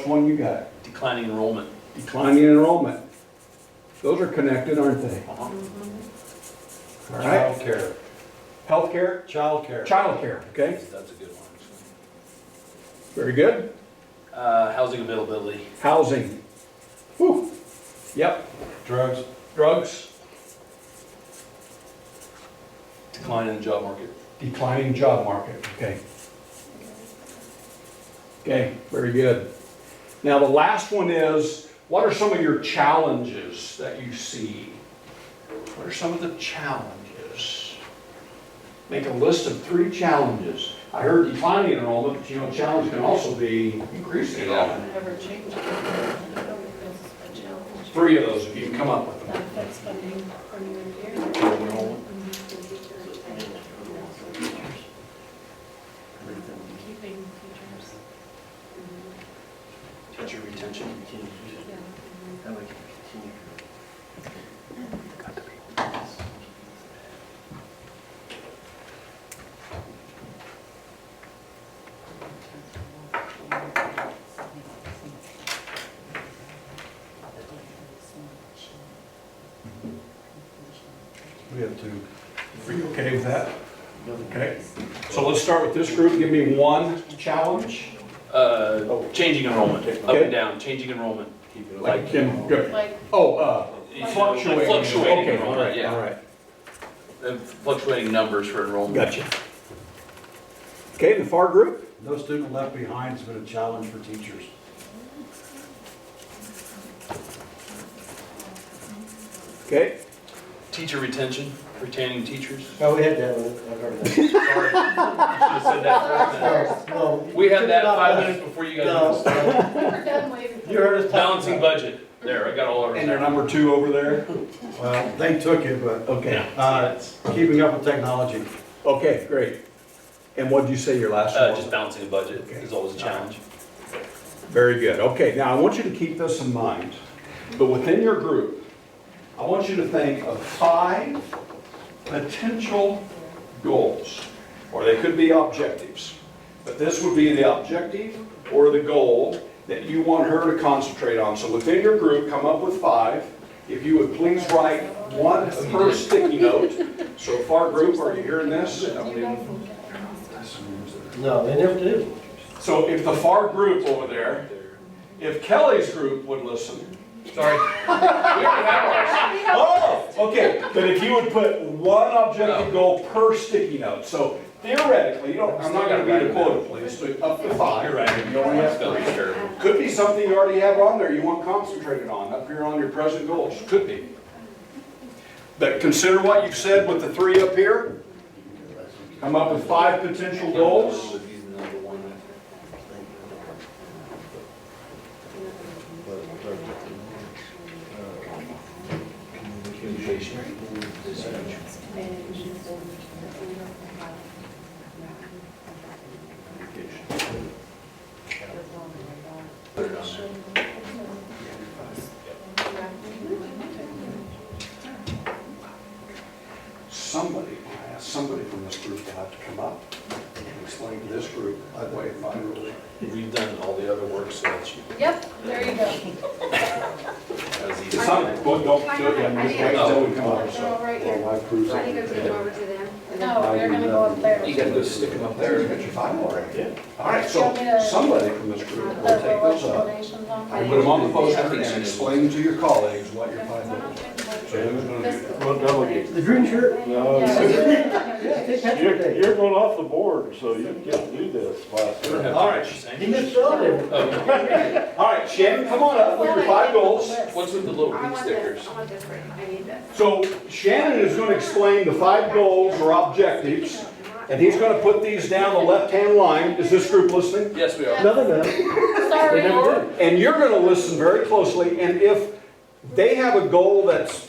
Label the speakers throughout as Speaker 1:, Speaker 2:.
Speaker 1: Which one you got?
Speaker 2: declining enrollment.
Speaker 1: Declining enrollment. Those are connected, aren't they?
Speaker 2: Uh-huh.
Speaker 1: All right.
Speaker 3: Childcare,
Speaker 1: Healthcare,
Speaker 3: childcare.
Speaker 1: childcare, okay?
Speaker 2: That's a good one. actually.
Speaker 1: Very good.
Speaker 2: Uh, housing availability,
Speaker 1: Housing. Whew. Yep.
Speaker 3: Drugs,
Speaker 1: Drugs,
Speaker 2: decline in the job market.
Speaker 1: declining job market, okay? Okay, very good. Now, the last one is, what are some of your challenges that you see? What are some of the challenges? Make a list of three challenges. I heard declining enrollment, but you know, challenge can also be increasing enrollment.
Speaker 4: Never change. it. I don't think that's a challenge.
Speaker 1: Three of those, if you can come up with them.
Speaker 4: That affects funding from year to year. Keeping teachers.
Speaker 2: Teacher retention.
Speaker 4: Yeah.
Speaker 3: we have two.
Speaker 1: Are you okay with that? Okay. So let's start with this group. Give me one challenge.
Speaker 2: Uh, changing enrollment, up
Speaker 1: Okay.
Speaker 2: and down, changing enrollment. Keep it
Speaker 1: Like
Speaker 2: Like
Speaker 1: Kim, good.
Speaker 4: Like,
Speaker 1: Oh, uh,
Speaker 2: Like
Speaker 1: fluctuating.
Speaker 2: fluctuating
Speaker 1: Okay, all
Speaker 2: enrollment,
Speaker 1: right,
Speaker 2: yeah.
Speaker 1: all right.
Speaker 2: uh, fluctuating numbers for enrollment.
Speaker 1: Gotcha. Okay, the FAR group?
Speaker 3: No student left behind has been a challenge for teachers.
Speaker 1: Okay.
Speaker 2: Teacher retention, retaining teachers.
Speaker 5: No, Oh, we had that, one. I've heard that.
Speaker 2: Sorry. I should've said that first then.
Speaker 5: No, no.
Speaker 2: We had that
Speaker 5: Not
Speaker 2: five
Speaker 5: us.
Speaker 2: minutes before you
Speaker 5: No,
Speaker 2: guys.
Speaker 5: no.
Speaker 4: we were done way before.
Speaker 5: you heard us talking
Speaker 2: Balancing
Speaker 5: about
Speaker 2: budget. There, I got all over.
Speaker 1: And they're number two over there?
Speaker 3: Well, they took it, but
Speaker 1: Okay,
Speaker 3: uh, keeping up with technology.
Speaker 1: okay, great. And what did you say your last
Speaker 2: Uh, just
Speaker 1: one was?
Speaker 2: balancing a budget is always a challenge.
Speaker 1: Very good. Okay, now I want you to keep this in mind, but within your group, I want you to think of five potential goals, or they could be objectives. But this would be the objective or the goal that you want her to concentrate on. So within your group, come up with five. If you would please write one per sticky note. So far, group, are you hearing this?
Speaker 5: it. No, they never do.
Speaker 1: So if the FAR group over there, if Kelly's group would listen, sorry. we already have ours. Oh, okay, but if you would put one objective goal per sticky note, so theoretically, you don't, I'm not gonna read a quota, please, but up to five. You only have three. Could be something you already have on there you want concentrated on, up here on your present goals, could be. But consider what you've said with the three up here. Come up with five potential goals. Somebody, I asked somebody from this group to have to come up and explain to this group, by the way, my rules.
Speaker 2: We've done all the other work, so that's you.
Speaker 4: Yep, there you go.
Speaker 2: That was easy.
Speaker 1: It's not, don't, don't do it yet, just wait until we come up,
Speaker 4: They're all
Speaker 1: so.
Speaker 4: right
Speaker 3: Or
Speaker 4: here.
Speaker 3: my cruise.
Speaker 6: I think I'm gonna go over to them. and then-
Speaker 4: No, they're gonna
Speaker 1: uh,
Speaker 4: go up there.
Speaker 2: You gotta go stick them up
Speaker 1: There, you
Speaker 2: there.
Speaker 1: got your five already. All right, so somebody from this group will
Speaker 4: The
Speaker 1: take those up.
Speaker 4: donations on.
Speaker 1: And put them on the poster and explain to your colleagues what your five goals are. So who's gonna do that?
Speaker 7: Well, delegate.
Speaker 5: The green shirt? Yeah,
Speaker 4: Yeah.
Speaker 5: take that
Speaker 7: You're,
Speaker 5: one day.
Speaker 7: you're going off the board, so you can't do this last year.
Speaker 1: All right,
Speaker 2: She's
Speaker 5: He
Speaker 2: saying-
Speaker 5: missed all of them.
Speaker 2: Oh,
Speaker 1: all right, Shannon, come on up with your five goals.
Speaker 2: What's with the little
Speaker 6: I
Speaker 2: pink
Speaker 6: want
Speaker 2: stickers?
Speaker 6: this, I want this right, I need this.
Speaker 1: So Shannon is gonna explain the five goals or objectives, and he's gonna put these down the left-hand line. Is this group listening?
Speaker 2: Yes, we are.
Speaker 5: No, no, no.
Speaker 4: Sorry,
Speaker 5: They never
Speaker 4: Lord.
Speaker 5: do.
Speaker 1: And you're gonna listen very closely, and if they have a goal that's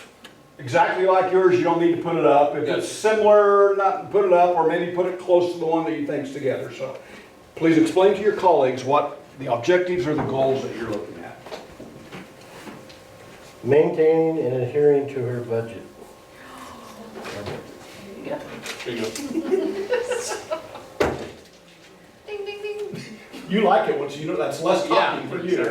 Speaker 1: exactly like yours, you don't need to put it up. If it's
Speaker 2: Yes.
Speaker 1: similar, not put it up, or maybe put it close to the one that you think's together, so. Please explain to your colleagues what the objectives or the goals that you're looking at.
Speaker 5: Maintaining and adhering to her budget.
Speaker 2: There you go.
Speaker 4: Ding, ding, ding.
Speaker 1: You like it once you know that's less
Speaker 2: Yeah.
Speaker 1: talking for you.